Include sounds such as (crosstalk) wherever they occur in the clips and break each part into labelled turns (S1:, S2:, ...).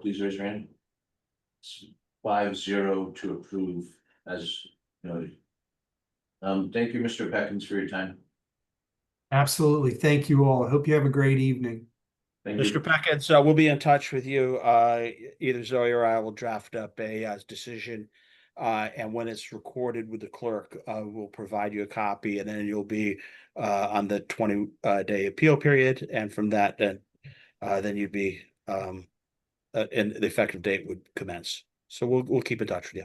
S1: please raise your hand. Five zero to approve as noted. Um, thank you, Mr. Peckins, for your time.
S2: Absolutely. Thank you all. I hope you have a great evening.
S1: Thank you.
S3: Mr. Peckett, so we'll be in touch with you. Uh, either Zoe or I will draft up a uh, decision. Uh, and when it's recorded with the clerk, uh, we'll provide you a copy and then you'll be uh, on the twenty uh, day appeal period. And from that, then uh, then you'd be um, uh, and the effective date would commence. So we'll we'll keep in touch with you.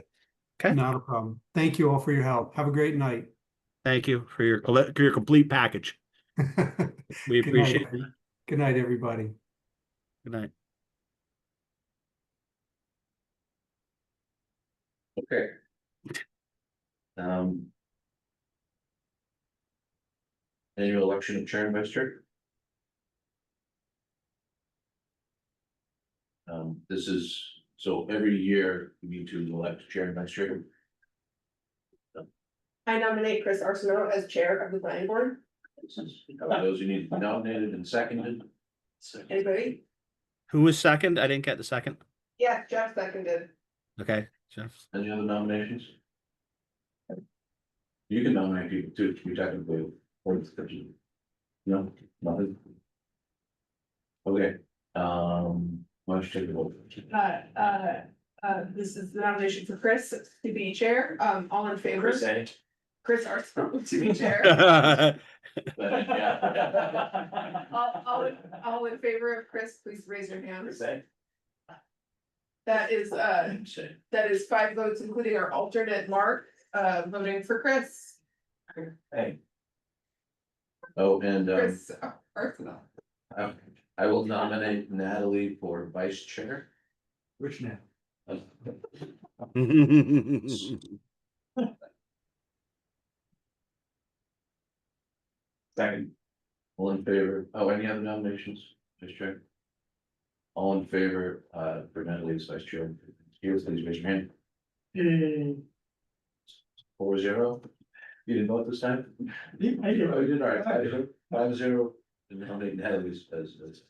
S3: Okay.
S2: Not a problem. Thank you all for your help. Have a great night. (laughs)
S3: Thank you for your for your complete package. We
S2: Good night. appreciate
S3: it.
S2: Good night, everybody.
S3: Good night.
S1: Okay. Um. Annual election of chair and vice chair. Um, this is, so every year we need to elect chair and vice chair.
S4: I nominate Chris Arsenault as chair of the planning board.
S1: Those who need to be nominated and seconded.
S4: Anybody?
S3: Who was second? I didn't get the second.
S4: Yeah, Jeff seconded.
S3: Okay,
S2: (laughs)
S3: (laughs) Jeff.
S1: Any other nominations? You can nominate people too, if you technically, or it's fifteen. No, nothing. Okay, um, why don't you take the vote?
S4: Uh, uh, uh, this is the nomination for Chris to be chair. Um, all in favor? (laughs)
S1: A.
S4: Chris Arsenault (laughs) to be chair.
S3: Aye.
S4: All, all, in- all in favor of Chris, please raise your hand. That is, uh, that is five votes, including our alternate Mark, uh, voting for Chris,
S1: Hey. Oh, and um,
S4: Chris Arsenault.
S1: I- I will nominate Natalie for vice chair. Uh,
S2: Rich now.
S1: Second. All in favor, oh, any other nominations, Vice Chair? All in favor, uh, for Natalie as Vice Chair, here, please raise your hand. Four zero, you didn't vote this time? I did. Oh, you did, all right, five zero, five zero, and nominate Natalie as, as, as-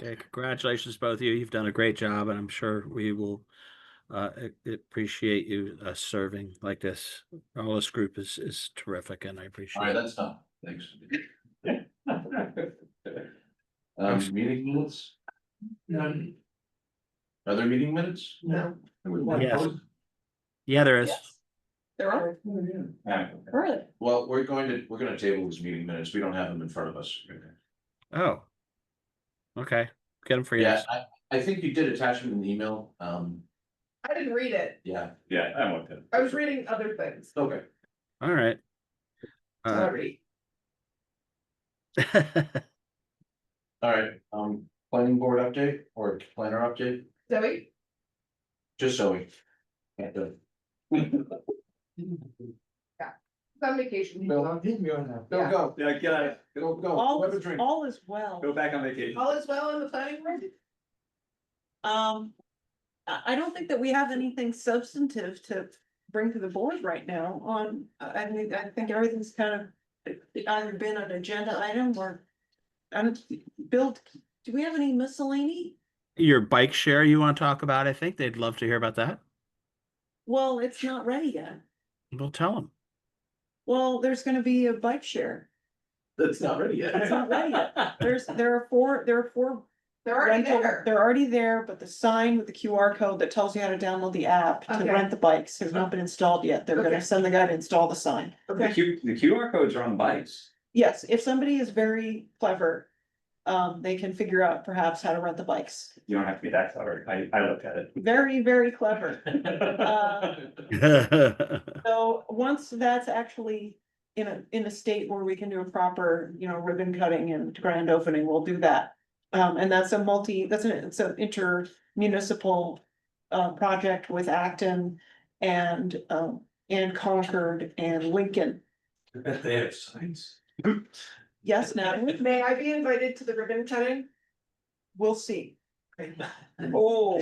S3: Okay, congratulations, both of you. You've done a great job, and I'm sure we will uh, a- appreciate you uh, serving like this. All this group is is terrific, and I
S1: all
S3: appreciate
S1: right,
S3: it.
S1: that's done, thanks. (laughs) Um, meeting minutes,
S4: No.
S1: other meeting minutes?
S4: No.
S3: Yes. Yeah, there is.
S4: Yes. There are.
S1: Oh, Yeah.
S4: Really?
S1: Ah, Well, we're going to, we're gonna table these meeting minutes, we don't have them in front of us.
S3: Oh. Okay, get them for you.
S1: Yeah, I, I think you did attach them in the email, um,
S4: I didn't read it.
S1: yeah,
S5: Yeah, I want that.
S4: I was reading other things.
S1: okay.
S3: All right. Uh,
S4: Sorry.
S1: All right, um, planning board update or planner update,
S4: Zoe?
S1: just so we. can't
S6: (laughs)
S1: do it.
S4: On vacation.
S1: Bill,
S4: Yeah.
S1: go,
S5: Yeah, get out,
S1: go, go,
S6: All,
S1: have a
S6: is-
S1: drink.
S6: all is well.
S5: go back on vacation.
S1: (laughs)
S4: All is well in the planning board?
S6: Um, I, I don't think that we have anything substantive to bring to the board right now on, I I mean, I think everything's kind of. it Either been an agenda item or, and build, do we have any miscellany?
S3: (laughs) Your bike share you want to talk about? I think they'd love to hear about that.
S6: Well, it's not ready yet.
S3: We'll tell them.
S6: Well, there's gonna be a bike share.
S5: That's not ready yet.
S6: It's not ready
S1: (laughs)
S6: yet. There's, there are four, there are four
S4: They're already
S6: rental-
S4: there.
S6: They're already there, but the sign with the QR code that tells you how to download the app to
S4: Okay.
S6: rent the bikes has not been installed yet. They're
S4: Okay.
S6: gonna send the guy to install the sign.
S5: The Q, the QR codes are on bikes.
S6: Yes, if somebody is very clever, um, they can figure out perhaps how to rent the bikes.
S5: You don't have to be that clever. I, I looked at
S6: Very,
S5: (laughs)
S6: very clever. Uh,
S5: it.
S1: (laughs)
S3: (laughs)
S6: So once that's actually in a, in a state where we can do a proper, you know, ribbon cutting and grand opening, we'll do that. Um, and that's a multi, that's an, it's an intermunicipal uh, project with Acton and, um, and Concord and Lincoln.
S5: They have signs.
S6: Yes, Natalie,
S4: May I be invited to the ribbon cutting?
S6: we'll see.
S1: (laughs)
S5: Oh.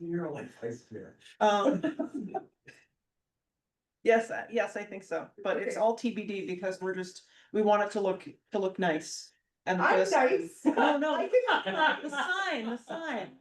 S5: You're
S6: (laughs) Um. Yes, I- yes, I think so, but it's all TBD because we're just, we want it to look, to look nice. And
S4: I'm
S6: just-
S4: nice.
S6: Oh, No,
S4: (laughs)
S6: no,
S4: I think-
S6: (laughs) the sign, the sign.